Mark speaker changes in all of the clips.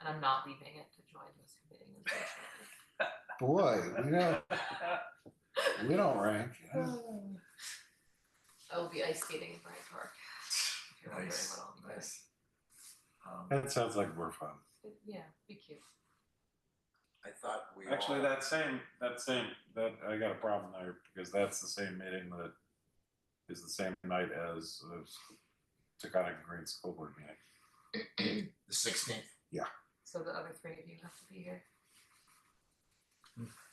Speaker 1: and I'm not leaving it to join this meeting. unfortunately.
Speaker 2: Boy, we don't, we don't rank.
Speaker 1: I will be ice skating in Bryant Park. if you're wondering
Speaker 3: Nice,
Speaker 1: what I'll be doing.
Speaker 3: nice. Um,
Speaker 2: That sounds like more fun.
Speaker 1: But Yeah, be cute.
Speaker 3: I thought we all.
Speaker 4: Actually, that same, that same, that, I got a problem there because that's the same meeting that is the same night as the Taconic Green School Board meeting.
Speaker 3: The sixteenth.
Speaker 1: So the other three of you have to be here.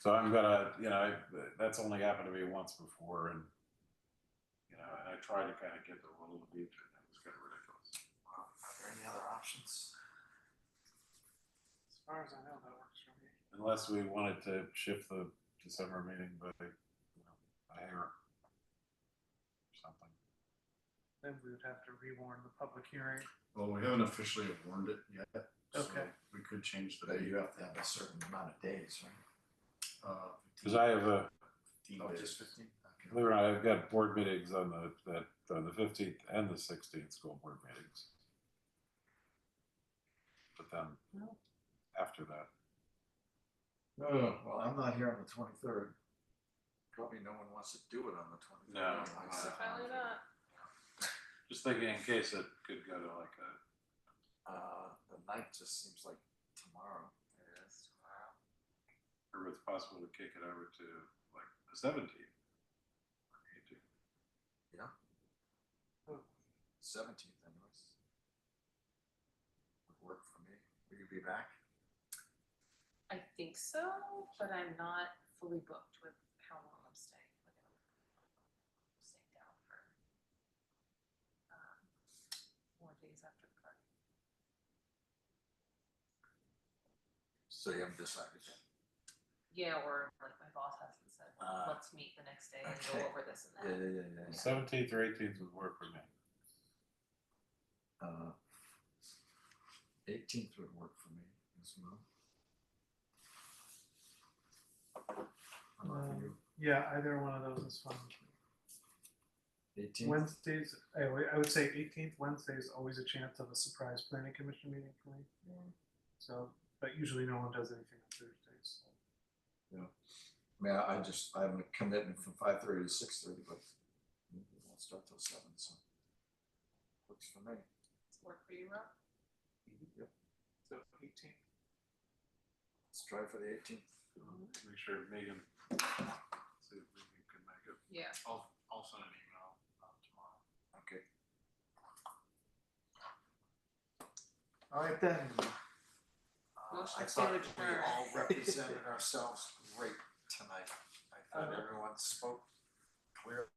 Speaker 4: So I'm gonna, you know, I- that's only happened to me once before and, you know, and I tried to kind of get the rule of beach and it was kind of ridiculous.
Speaker 3: Are there any other options?
Speaker 4: As far as I know, that works for me. Unless we wanted to shift the December meeting by, you know, a hair or something.
Speaker 5: Then we would have to rewarn the public hearing.
Speaker 6: Well, we haven't officially warned it yet. so
Speaker 5: Okay.
Speaker 6: We could change the
Speaker 3: But
Speaker 6: date,
Speaker 3: you have to have a certain amount of days, right?
Speaker 6: uh,
Speaker 4: Cause I have a,
Speaker 6: fifteen
Speaker 3: Oh,
Speaker 6: days.
Speaker 3: just fifteen? Okay.
Speaker 4: Believe it or not, I've got board meetings on the, that, on the fifteenth and the sixteenth school board meetings. But then, after that,
Speaker 3: No, no, no. well, I'm not here on the twenty-third. Probably no one wants to do it on the twenty-third.
Speaker 4: No, no.
Speaker 1: Probably not.
Speaker 4: just thinking in case it could go to like a,
Speaker 3: Uh, the night just seems like tomorrow.
Speaker 1: It is tomorrow.
Speaker 4: or it's possible to kick it over to like the seventeenth.
Speaker 3: Seventeenth anyways. Would work for me. Will you be back?
Speaker 1: I think so, but I'm not fully booked with how long I'm staying. Like, I'm Staying down for um, more days after the party.
Speaker 3: So you haven't decided yet?
Speaker 1: Yeah, or like my boss hasn't said,
Speaker 3: Uh,
Speaker 1: let's meet the next day and go
Speaker 3: okay.
Speaker 1: over this and
Speaker 3: Yeah,
Speaker 1: that.
Speaker 3: yeah, yeah, yeah, yeah.
Speaker 4: Seventeenth or eighteenth would work for me.
Speaker 3: Uh, eighteenth would work for me as well. How about for
Speaker 5: Um,
Speaker 3: you?
Speaker 5: Yeah, either one of those is fine. with me.
Speaker 3: Eighteenth,
Speaker 5: Wednesdays, I would- I would say eighteenth Wednesday is always a chance of a surprise planning commission meeting for me.
Speaker 1: Yeah.
Speaker 5: So, but usually no one does anything on Thursdays. so.
Speaker 3: I mean, I I just, I have a commitment from five thirty to six thirty, but we won't start till seven, so. Works for me.
Speaker 1: Does it Work for you, Rob?
Speaker 3: Yep,
Speaker 5: So eighteenth.
Speaker 3: let's try for the eighteenth.
Speaker 4: Make sure Megan, see if Megan can make it.
Speaker 1: Yeah.
Speaker 4: I'll, I'll send an email uh, tomorrow.
Speaker 3: Okay. All right then. Uh,
Speaker 1: Motion
Speaker 3: I
Speaker 1: to
Speaker 3: thought we
Speaker 1: adjourn.
Speaker 3: all represented ourselves great tonight. I thought everyone spoke clearly.